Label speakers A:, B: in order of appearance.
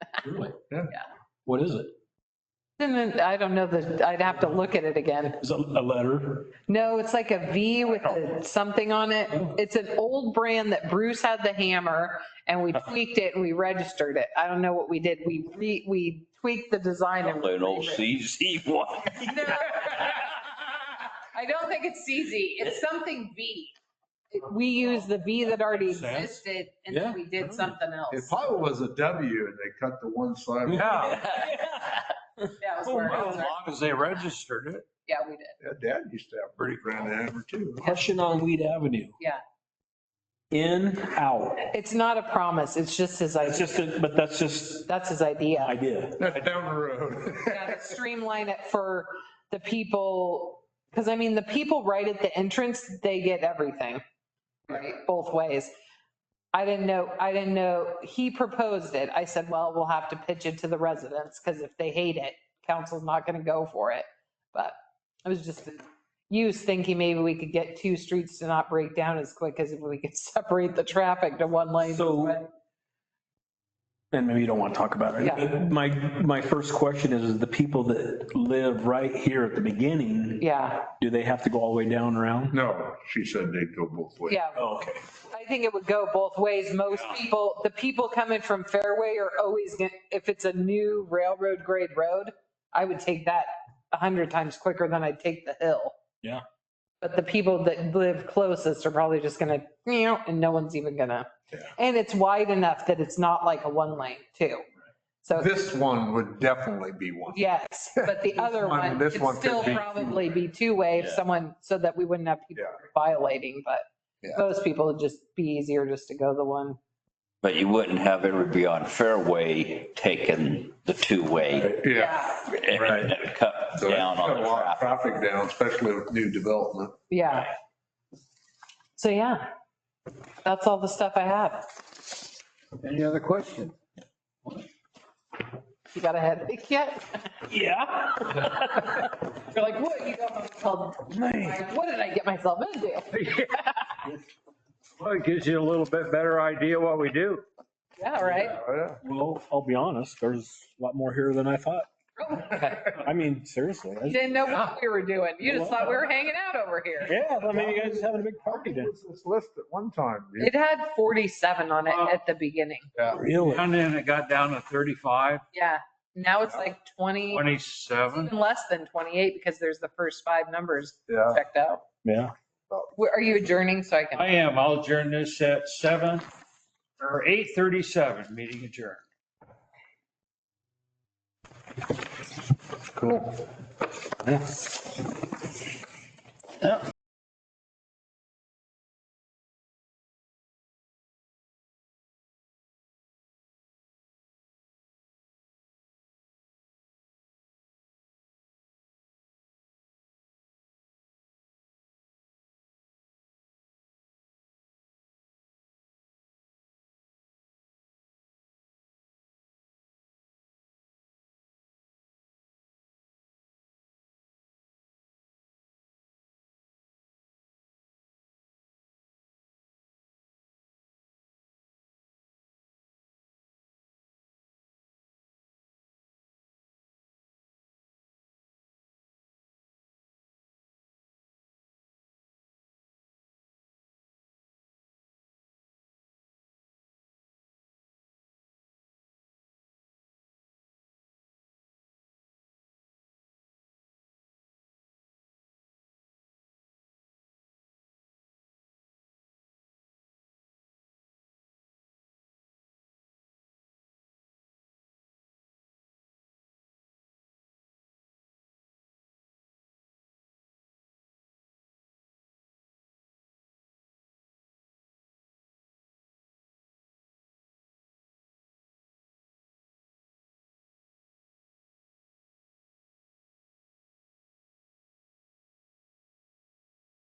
A: Really?
B: Yeah.
A: What is it?
C: And then, I don't know that, I'd have to look at it again.
A: Is it a letter?
C: No, it's like a V with a something on it. It's an old brand that Bruce had the hammer and we
D: Uh-huh.
C: tweaked it and we registered it. I don't know what we did. We re, we tweaked the design and.
D: An old CZ one.
C: No. I don't think it's CZ. It's something V. We used the V that already existed and then we did something
B: It
C: else.
B: probably was a W and they cut the one side.
A: Yeah.
C: That was
A: Oh,
C: where it
A: well, As
C: was.
A: long as they registered it.
C: Yeah, we did.
B: Yeah, Dad used to have pretty grand hammer too.
A: Question on Weed Avenue.
C: Yeah.
A: In, out.
C: It's not a promise. It's just his
A: That's
C: idea.
A: just, a- but that's just
C: That's his idea.
A: idea.
B: That's down the road.
C: Yeah, to streamline it for the people, because I mean, the people right at the entrance, they get everything, right, both ways. I didn't know, I didn't know, he proposed it. I said, well, we'll have to pitch it to the residents, because if they hate it, council's not going to go for it. But it was just, you was thinking maybe we could get two streets to not break down as quick as if we could separate the traffic to one lane.
A: So- And maybe you don't want to talk about it.
C: Yeah.
A: But My, my first question is, is the people that live right here at the beginning,
C: Yeah,
A: do they have to go all the way down around?
B: No, she said they'd go both ways.
C: yeah.
A: Oh, Okay.
C: I think it would go both ways. Most people, the people coming from Fairway are always, gonna if it's a new railroad grade road, I would take that a hundred times quicker than I'd take the hill.
A: Yeah.
C: But the people that live closest are probably just gonna, you know, and no one's even gonna.
B: Yeah.
C: And it's wide enough that it's not like a one lane too. So,
B: This one would definitely be one.
C: yes, but the other
B: one-
C: one
B: this
C: could
B: one could
C: still
B: be-
C: probably be two-way if
D: Yeah.
C: someone, so that we wouldn't have people
B: Yeah.
C: violating, but
B: Yeah.
C: most people would just be easier just to go the one.
D: But you wouldn't have everybody on Fairway taking the two-way
B: Yeah.
D: and cut
B: So
D: down
B: that's
D: on
B: cut a
D: the
B: lot of
D: traffic.
B: Traffic down, especially with new development.
C: Yeah. So yeah, that's all the stuff I have.
E: Any other question?
C: You got a headache yet?
A: Yeah.
C: You're like, what, you got myself, like, what did I get myself into?
F: Well, it gives you a little bit better idea what we do.
C: Yeah, right?
B: Oh,
A: Well, I'll be honest, there's a lot more here than I thought.
C: Oh.
A: I mean, seriously.
C: You
A: I-
C: didn't know what we were doing. You just thought we were hanging out over here.
A: Yeah, I mean, you guys are having a big party
B: yeah.
A: then.
B: What's This list at one time. dude?
C: It had 47 on it at the beginning.
A: Really?
F: And then it got down to 35,
C: Yeah. Now it's like 20,
F: 27.
C: even less than 28 because there's the first five numbers
B: Yeah.
C: checked out.
A: Yeah.
C: Where- Are you adjourning so I
F: I
C: can?
F: am, I'll adjourn this at 7 or 8:37, meeting adjourned.
A: Cool. Yeah.
F: Yep.